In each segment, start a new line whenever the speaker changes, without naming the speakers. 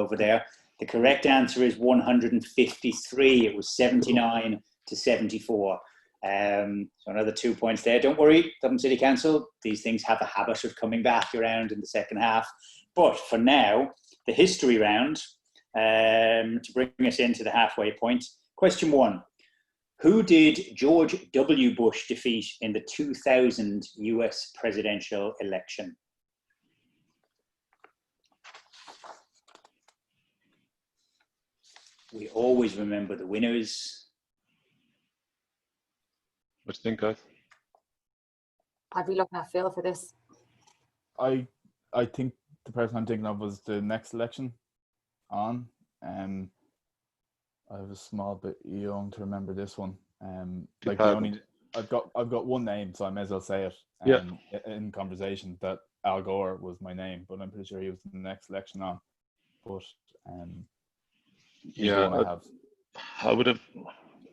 over there. The correct answer is 153. It was 79 to 74. Um, so another two points there. Don't worry, Dublin City Council. These things have a habit of coming back around in the second half. But for now, the history round um, to bring us into the halfway point. Question one: Who did George W. Bush defeat in the 2000 U.S. presidential election? We always remember the winners.
What do you think, guys?
I'd be looking at Phil for this.
I I think the person I'm thinking of was the next election on. Um I was a small bit young to remember this one. Um like the
2000.
only I've got I've got one name, so I may as well say it
Yeah.
um, i- in conversation that Al Gore was my name, but I'm pretty sure he was the next election on. But um he's the
Yeah,
one I
I-
have.
I would have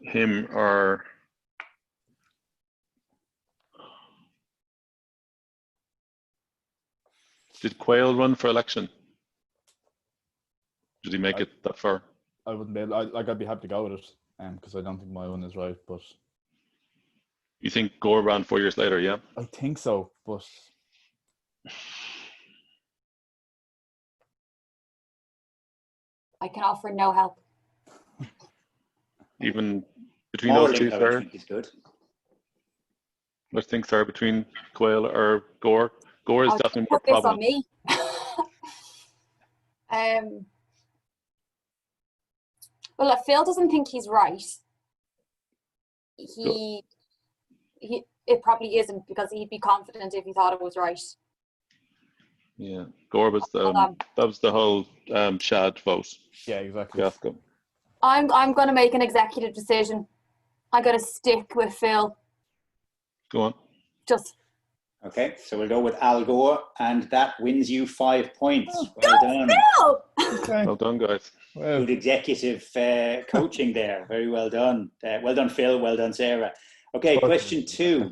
him or did Quayle run for election? Did he make
I-
it that far?
I wouldn't be able, I, like I'd be happy to go with it, um, because I don't think my one is right, but
You think Gore ran four years later? Yeah.
I think so, but
I can offer no help.
Even between
Moral
those two, sir.
encouragement is good.
What do you think, sir? Between Quayle or Gore? Gore is
Oh,
definitely more
Put this on
problem.
me. um. Well, if Phil doesn't think he's right, he, he it probably isn't because he'd be confident if he thought it was right.
Yeah. Gore was the
Hold on.
that was the whole um, Shad vote
yeah, exactly.
fiasco.
I'm I'm going to make an executive decision. I'm going to stick with Phil.
Go on.
Just
Okay, so we'll go with Al Gore, and that wins you five points. well
go
done.
Phil.
Okay.
Well done, guys.
Well,
Good executive uh, coaching there. Very well done. Uh, well done, Phil. Well done, Sarah. Okay,
Well
question two.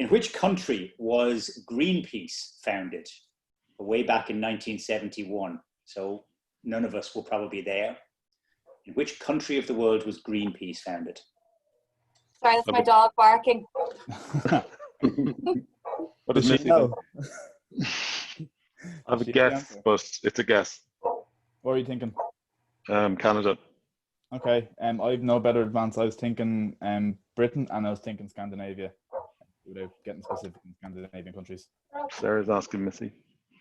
In which country was Greenpeace founded? Way back in 1971. So none of us were probably there. In which country of the world was Greenpeace founded?
Sorry, that's my
Okay.
dog barking.
What
Does
does
she
Missy
know?
think? I have a
She
guess,
knows.
but it's a guess.
what are you thinking?
Um, Canada.
Okay, um, I've no better advance. I was thinking um, Britain and I was thinking Scandinavia, without getting specific in Scandinavian countries.
Sarah's asking Missy.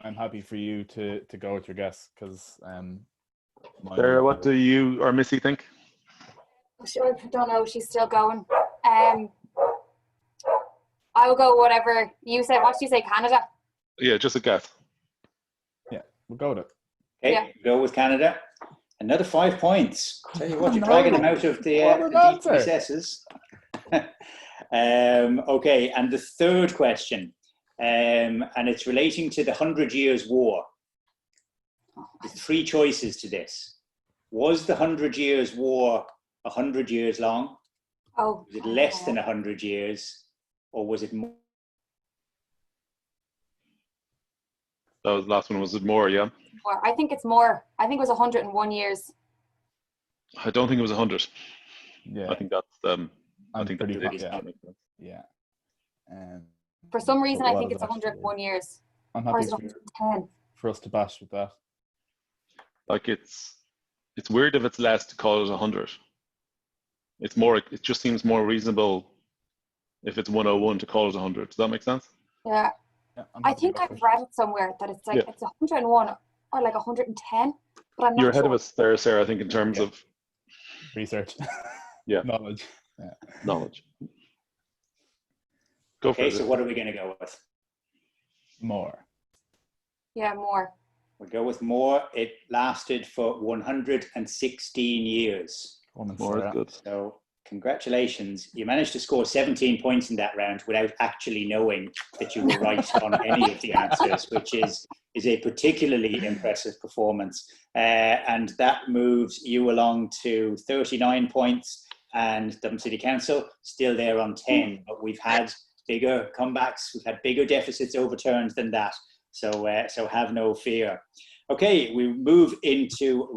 I'm happy for you to, to go with your guess because um, mine-
Sarah, what do you or Missy think?
Sure, I don't know. She's still going. Um, I will go whatever you say. What do you say, Canada?
Yeah, just a guess.
we'll go with it.
Okay,
Yeah.
go with Canada. Another five points. Tell you what, you're
no.
dragging them out of the, uh,
What an
the deep
answer.
recesses. um, okay, and the third question, um, and it's relating to the Hundred Years' War. There's three choices to this. Was the Hundred Years' War a hundred years long?
Oh,
Was it less than a hundred years, or was it more?
That was the last one. Was it more? Yeah.
more. I think it's more. I think it was 101 years.
I don't think it was a hundred.
Yeah,
I think that's um. i
I'm
think
pretty
that's
hot,
it.
yeah. yeah. Um,
For some
So
reason, I
what
think
is
it's
it actually?
101 years. Um,
I'm
Or
happy
is it
for,
110?
for us to bash with that.
Like it's it's weird if it's less to call it a hundred. It's more. It just seems more reasonable if it's one hundred one to call it a hundred. Does that make sense?
Yeah.
Yeah, I'm
I
happy to
think
go
I've
first.
read it somewhere that it's like
Yeah.
it's 101 or like 110, but I'm not
You're ahead
sure.
of us there, Sarah. I think in terms
Yeah.
of
research.
Yeah.
knowledge.
knowledge. Go for
Okay,
it.
so what are we going to go with?
More.
Yeah, more.
We'll go with more. It lasted for 116 years.
Come on,
More
Sarah.
is good.
So congratulations. You managed to score 17 points in that round without actually knowing that you were right on any of the answers, which is, is a particularly impressive performance. Uh, and that moves you along to 39 points and Dublin City Council still there on 10. But we've had bigger comebacks, we've had bigger deficits overturned than that. So, uh, so have no fear. Okay, we move into